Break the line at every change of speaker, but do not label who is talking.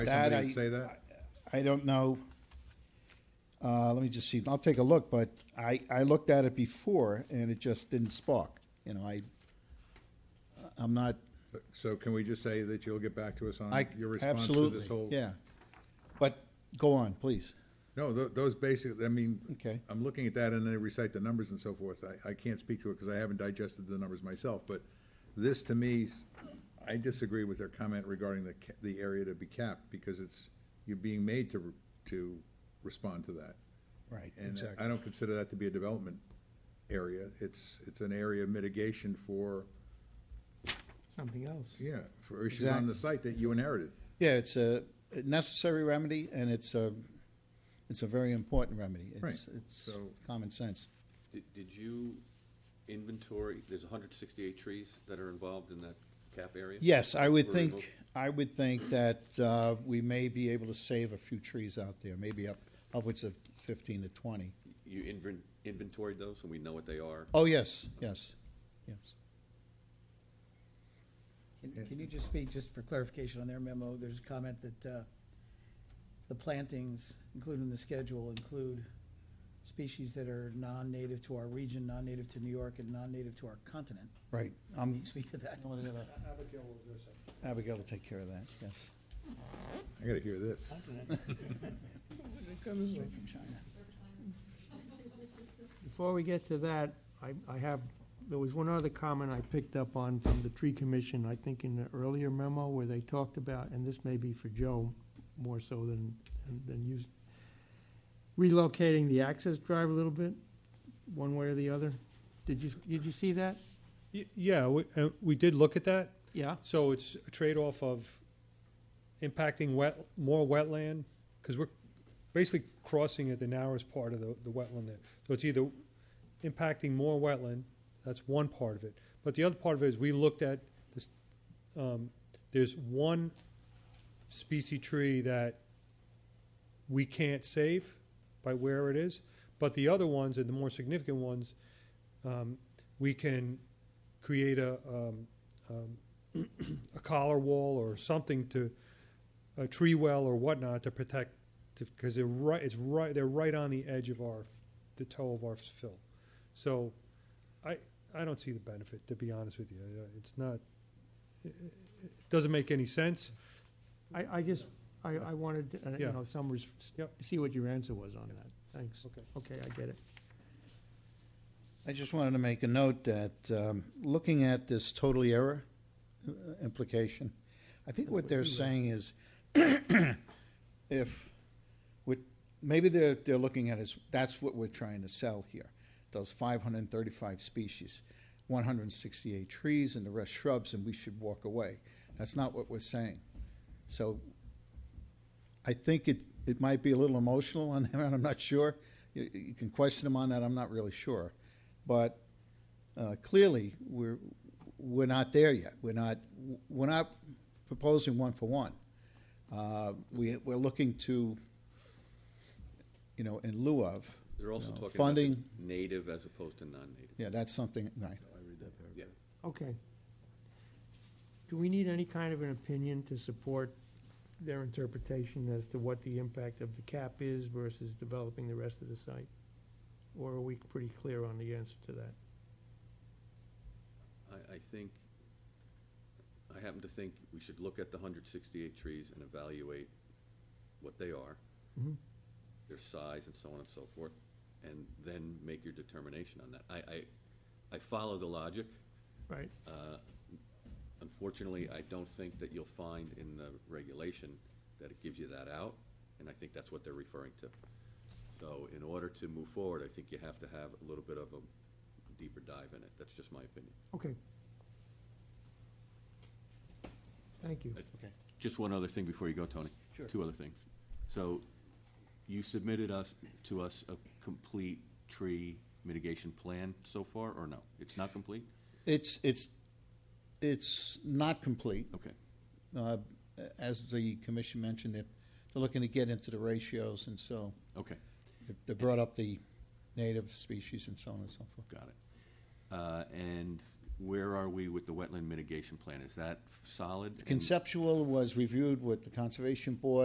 Why
That
somebody
I-
would say that?
I don't know. Uh, let me just see. I'll take a look, but I, I looked at it before and it just didn't spark. You know, I, I'm not,
So can we just say that you'll get back to us on
I,
your response to
absolutely,
this whole?
yeah. But go on, please.
No, tho- those basic, I mean,
Okay.
I'm looking at that and they recite the numbers and so forth. I, I can't speak to it because I haven't digested the numbers myself, but this to me, s- I disagree with their comment regarding the, ca- the area to be capped because it's, you're being made to, re- to respond to that.
Right,
And uh, I don't consider that to be a development area. It's, it's an area of mitigation for,
something else.
yeah, for issues on the site that you inherited.
Yeah, it's a necessary remedy and it's a, it's a very important remedy. It's,
Right,
it's
so-
common sense.
Did, did you inventory, there's hundred sixty-eight trees that are involved in that cap area?
Yes, I would
Were removed?
think, I would think that uh, we may be able to save a few trees out there, maybe up, upwards of fifteen to twenty.
You inven- inventoried those, and we know what they are?
Oh, yes, yes, yes.
Can can you just speak, just for clarification on their memo, there's a comment that uh, the plantings, including the schedule, include species that are non-native to our region, non-native to New York, and non-native to our continent.
Right,
Can
um,
you speak to that?
Abigail will take care of that, yes.
I gotta hear this.
Straight from China.
Before we get to that, I, I have, there was one other comment I picked up on from the tree commission, I think in the earlier memo where they talked about, and this may be for Joe more so than, than you, relocating the access drive a little bit, one way or the other. Did you, did you see that?
Y- Yeah, we, uh, we did look at that.
Yeah?
So it's a trade-off of impacting wet, more wetland, because we're basically crossing at the narrowest part of the, the wetland there. So it's either impacting more wetland, that's one part of it. But the other part of it is we looked at this, um, there's one species tree that we can't save by where it is, but the other ones, and the more significant ones, um, we can create a, um, um, a collar wall or something to, a tree well or whatnot to protect, because they're right, it's right, they're right on the edge of our, f- the toe of our fill. So I, I don't see the benefit, to be honest with you. Uh, It's not, it it doesn't make any sense.
I, I just, I, I wanted, uh, you
Yeah.
know, some, res-
Yep.
see what your answer was on that. Thanks.
Okay.
Okay, I get it.
I just wanted to make a note that, um, looking at this total error uh, implication, I think what they're saying is if, with, maybe they're, they're looking at is, that's what we're trying to sell here, those five hundred and thirty-five species, one hundred and sixty-eight trees and the rest shrubs, and we should walk away. That's not what we're saying. So I think it, it might be a little emotional on him, and I'm not sure. You, you can question him on that, I'm not really sure. But uh, clearly, we're, we're not there yet. We're not, we're not proposing one for one. Uh, we, we're looking to, you know, in lieu of.
They're also
you know,
talking about the
Funding,
native as opposed to non-native.
yeah, that's something, right.
Yeah.
Okay. Do we need any kind of an opinion to support their interpretation as to what the impact of the cap is versus developing the rest of the site? Or are we pretty clear on the answer to that?
I, I think, I happen to think we should look at the hundred sixty-eight trees and evaluate what they are,
Mhm.
their size and so on and so forth, and then make your determination on that. I, I, I follow the logic.
Right,
Uh, Unfortunately, I don't think that you'll find in the regulation that it gives you that out, and I think that's what they're referring to. So in order to move forward, I think you have to have a little bit of a deeper dive in it. That's just my opinion.
okay. Thank you.
Just one other thing before you go, Tony. Sure. Two other things. So you submitted us, to us, a complete tree mitigation plan so far, or no? It's not complete?
It's, it's, it's not complete.
Okay.
Uh, As the commission mentioned, they're they're looking to get into the ratios, and so
Okay.
they brought up the native species and so on and so forth.
Got it. Oh, Uh, And where are we with the wetland mitigation plan? Is that solid? and-
Conceptual was reviewed with the Conservation Board.